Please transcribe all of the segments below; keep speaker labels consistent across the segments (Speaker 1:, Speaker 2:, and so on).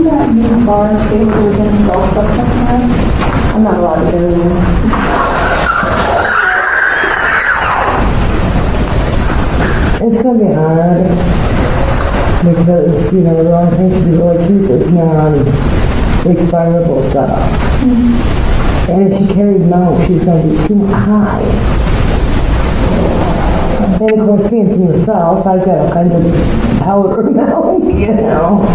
Speaker 1: and bar and skate, we were getting golf stuff sometimes. I'm not allowed to go there.
Speaker 2: It's gonna be hard because, uh, you know, the only thing to do like this is non-expirable stuff.
Speaker 1: Mm-hmm.
Speaker 2: And if she carries mount, she's gonna be too high. And of course, being from the south, I've got a kind of powder mount, you know.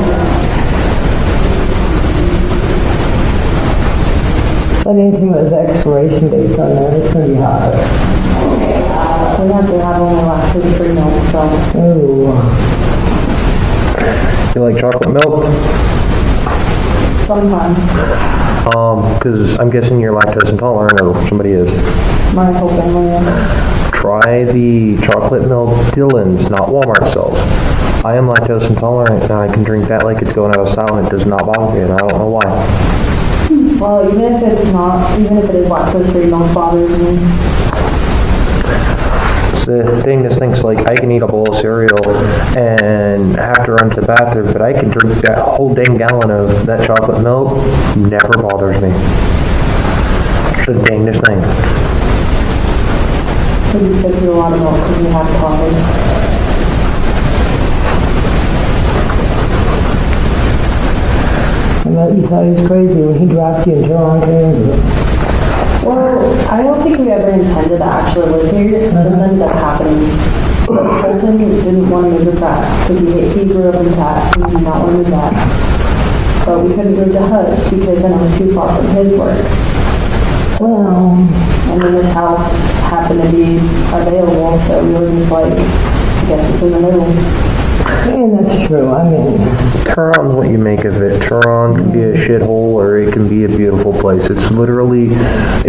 Speaker 2: But anything with expiration dates on there, it's gonna be hard.
Speaker 1: uh, We have to have only like two, three months, so.
Speaker 2: Oh,
Speaker 3: You like chocolate milk?
Speaker 1: Sometimes,
Speaker 3: Because Um, I'm guessing you're lactose intolerant or somebody is.
Speaker 1: my whole family, is.
Speaker 3: Try the chocolate milk Dillon's, not Walmart sells. I am lactose intolerant and I can drink that like it's going out of style and it does not bother me and I don't know why.
Speaker 1: well, even if it's not, even if it is like those three months bothers me.
Speaker 3: It's the thing that thinks like I can eat a bowl of cereal and have to run to the bathroom, but I can drink that whole dang gallon of that chocolate milk. Never bothers me. It's the dangest thing.
Speaker 1: So you said you a lot of milk because you have coffee.
Speaker 2: I know you thought he was crazy when he dropped you in Tehran, Kansas.
Speaker 1: Well, I don't think we ever intended to actually live here. It just ended up happening. But Colton didn't want to move to Pratt because he, he grew up in Pratt. He did not want to move back. But we couldn't move to Hutch because then it was too far from his work.
Speaker 2: Well,
Speaker 1: And then this house happened to be available, so we were just like, I guess it's in the middle.
Speaker 2: and that's true. I mean,
Speaker 3: Tehran's what you make of it. Tehran can be a shithole or it can be a beautiful place. It's literally,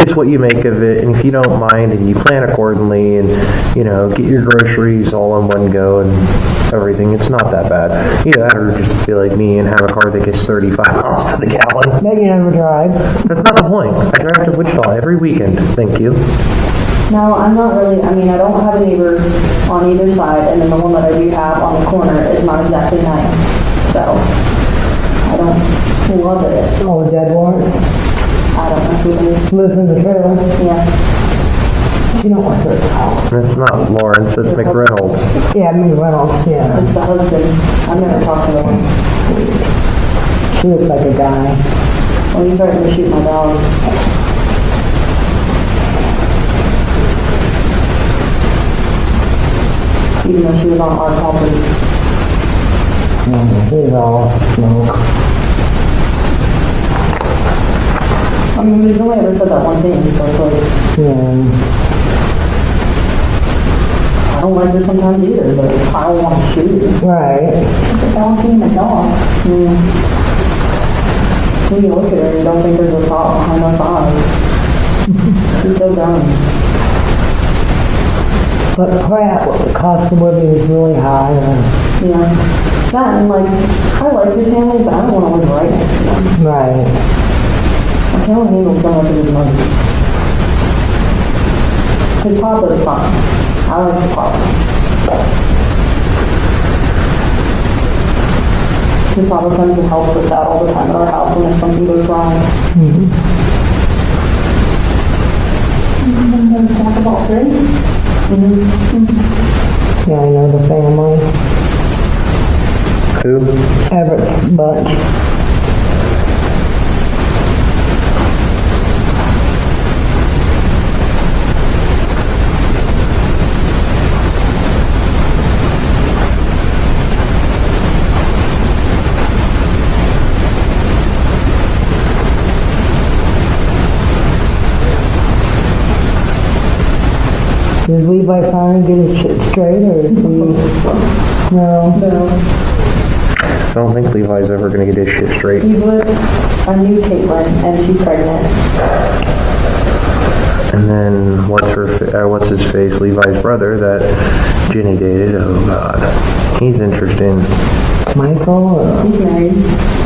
Speaker 3: it's what you make of it. And if you don't mind and you plan accordingly and, you know, get your groceries all in one go and everything, it's not that bad. Either that or just be like me and have a car that gets 35 miles to the gallon.
Speaker 2: bet you never drive.
Speaker 3: That's not the point. I drive to Wichita every weekend. Thank you.
Speaker 1: No, I'm not really, I mean, I don't have a neighbor on either side, and then the one that I do have on the corner is not exactly nice. So, I don't love it.
Speaker 2: All the dead warrants.
Speaker 1: I don't know who it is.
Speaker 2: Lives in the trailer.
Speaker 1: Yeah,
Speaker 2: She don't want this house.
Speaker 3: That's not Lawrence, that's McReynolds.
Speaker 2: Yeah, I mean Reynolds. Yeah,
Speaker 1: it's the husband. I've never talked to him.
Speaker 2: she looks like a guy.
Speaker 1: Well, he threatened to shoot my dog. Even though she was on our property.
Speaker 2: Mm, He's all smoke.
Speaker 1: I mean, we've only ever said that one thing, so it's like,
Speaker 2: Yeah,
Speaker 1: I don't like her sometimes either, but I don't want to shoot her.
Speaker 2: right.
Speaker 1: It's a dog being a dog. Mm. When you look at her, you don't think there's a thought behind those eyes. She's so dumb.
Speaker 2: But crap, the cost of living is really high. uh,
Speaker 1: Yeah. That and like, I like his family, but I don't want to live right next to them.
Speaker 2: Right.
Speaker 1: I can't handle so much of his money. His papa's fine. I like his papa. His papa comes and helps us out all the time at our house when there's something goes wrong. Mm-hmm. And then talk about drinks. Mm-hmm.
Speaker 2: Yeah, I know the family.
Speaker 3: Who?
Speaker 2: Everett's bunch. Did Levi finally get his shit straight, or is he? No.
Speaker 1: No,
Speaker 3: I don't think Levi's ever going to get his shit straight.
Speaker 1: he's with a new Caitlin and she's pregnant.
Speaker 3: And then what's her, fa- uh, what's his face, Levi's brother that Jenny dated. Oh God, he's interesting.
Speaker 2: Michael or?
Speaker 1: He's married.